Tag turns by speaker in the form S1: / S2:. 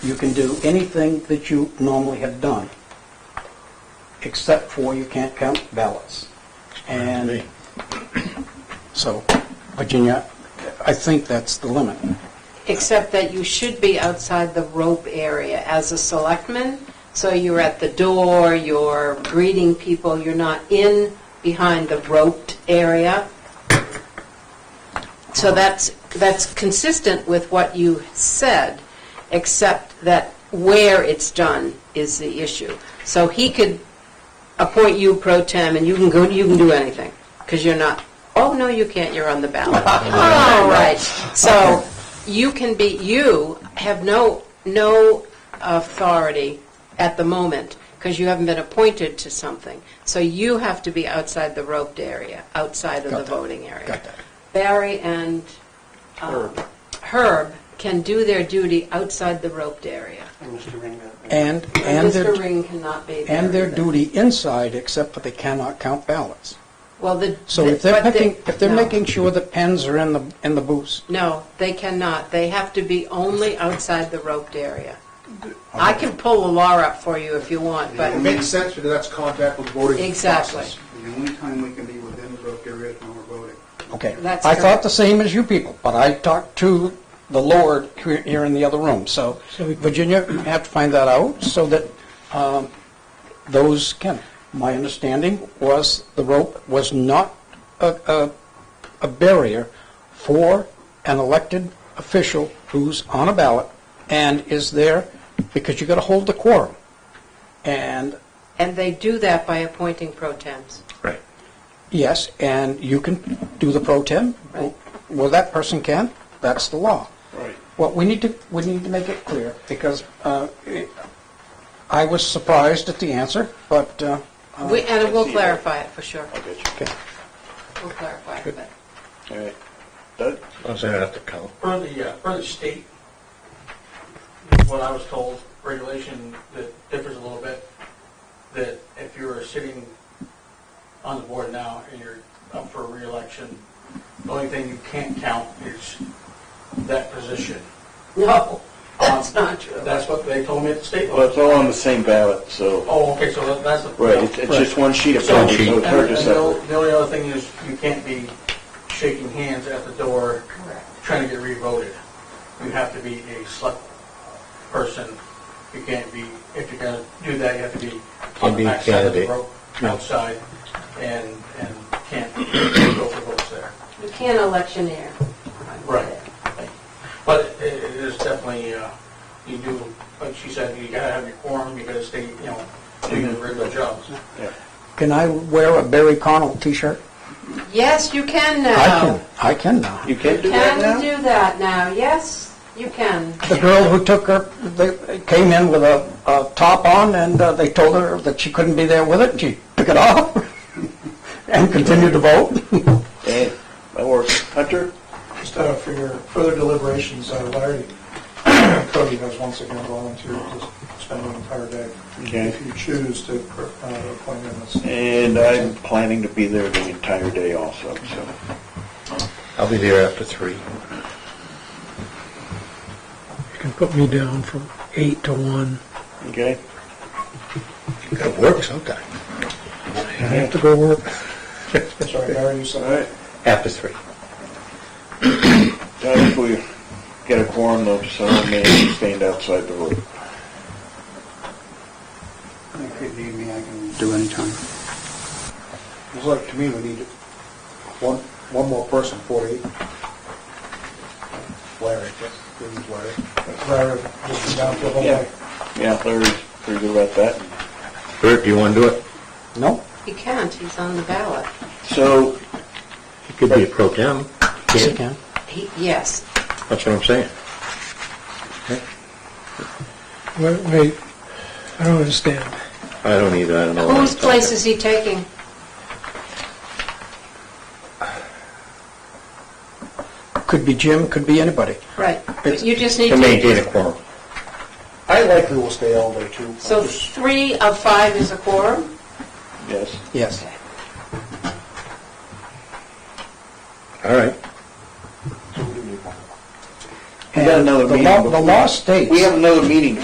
S1: You can do anything that you normally have done, except for you can't count ballots. And so, Virginia, I think that's the limit.
S2: Except that you should be outside the rope area as a selectman, so you're at the door, you're greeting people, you're not in behind the roped area. So that's, that's consistent with what you said, except that where it's done is the issue. So he could appoint you pro tem, and you can go, you can do anything, because you're not, oh, no, you can't, you're on the ballot. All right, so you can be, you have no, no authority at the moment, because you haven't been appointed to something. So you have to be outside the roped area, outside of
S1: Got
S2: the
S1: that.
S2: voting area.
S1: Got that.
S2: Barry and um, Herb can do their duty outside the roped area.
S1: And, and
S2: Mr.
S1: their,
S2: Ring cannot be there.
S1: and their
S2: either.
S1: duty inside, except that they cannot count ballots.
S2: Well, the.
S1: So if they're
S2: but they-
S1: picking, if they're
S2: no.
S1: making sure that pens are in the, in the booths,
S2: No, they cannot. They have to be only outside the roped area. I can pull the law up for you if you want, but,
S3: It makes sense, because that's contact with voting
S2: Exactly.
S3: process.
S4: The only time we can be within the roped area is when we're voting.
S1: Okay.
S2: That's
S1: I thought
S2: correct.
S1: the same as you people, but I talked to the Lord here here in the other room. So Virginia, you have to find that out so that um, those can. My understanding was the rope was not a- a a barrier for an elected official who's on a ballot and is there because you got to hold the quorum. And
S2: and they do that by appointing pro temps.
S5: Right.
S1: Yes, and you can do the pro tem.
S2: Right.
S1: Well, that person can, that's the law.
S5: Right.
S1: Well, we need to, we need to make it clear, because uh, I was surprised at the answer, but, uh,
S2: We- And we'll
S5: see that.
S2: clarify it for sure.
S5: I get
S1: okay.
S2: We'll clarify it, but.
S5: you. All right. Doug?
S6: I'm saying have to count.
S7: Per the, uh, per the state, what I was told, regulation that differs a little bit, that if you're sitting on the board now and you're up for reelection, the only thing you can't count is that position. Um,
S2: No, that's not true.
S7: That's what they told me at the state
S5: Well,
S7: level.
S5: it's all on the same ballot, so,
S7: Oh, okay, so that- that's the.
S5: right, it's, it's just one sheet of
S7: So, and
S5: paper, so
S7: and
S5: it's hard to
S7: the o-
S5: separate.
S7: the only other thing is you can't be shaking hands at the door
S2: Correct.
S7: trying to get re-voted. You have to be a select person. You can't be, if you're gonna do that, you have to be on
S6: Can't
S7: the
S6: be a
S7: backside of the
S6: candidate.
S7: rope, outside, and, and can't go for votes there.
S2: You can't electioneer.
S7: Right. But it it is definitely, uh, you do, like she said, you gotta have your quorum, you gotta stay, you know, doing your regular jobs.
S1: Can I wear a Barry Connell t-shirt?
S2: Yes, you can
S1: I
S2: now.
S1: can, I can now.
S5: You can do that
S2: Can
S5: now?
S2: do that now, yes, you can.
S1: The girl who took her, they came in with a a top on, and uh, they told her that she couldn't be there with it, and she took it off and continued to vote.
S5: Hey, that works. Hunter?
S8: Just uh, for your further deliberations, uh, Larry Cody has once again volunteered to spend an entire day.
S5: Okay.
S8: If you choose to uh, appoint him as...
S5: And I'm planning to be there the entire day also, so.
S6: I'll be there after three.
S9: You can put me down from eight to one.
S5: Okay?
S6: Got to work sometime. I have to go work.
S8: Sorry, Larry, you
S5: All
S8: said...
S5: right.
S6: After three.
S5: Now, if we get a quorum, though, someone may stand outside the room.
S4: If you need me, I can do anytime.
S3: It's like, to me, we need one, one more person, 48. Larry, we need Larry.
S8: Larry, just down for the whole
S5: Yeah.
S8: day.
S5: Yeah, Larry's pretty good about that.
S6: Bert, do you want to do it?
S1: No?
S2: He can't, he's on the ballot.
S5: So,
S6: You could be a pro tem.
S1: Yes, I
S6: Can't-
S1: can.
S2: He, yes,
S6: That's what I'm saying.
S9: Wait, wait, I don't understand.
S6: I don't either, I don't know. what I'm
S2: Whose
S6: talking.
S2: place is he taking?
S1: Could be Jim, could be anybody.
S2: Right, but you just need
S6: To
S2: to...
S6: maintain a quorum.
S3: I likely will stay all day, too.
S2: So three of five is a quorum?
S5: yes.
S1: Yes.
S6: All right.
S3: So we do need one.
S1: And
S5: We got
S1: And
S5: another
S1: the
S5: meeting.
S1: law- The
S5: before-
S1: law states.
S5: We have another meeting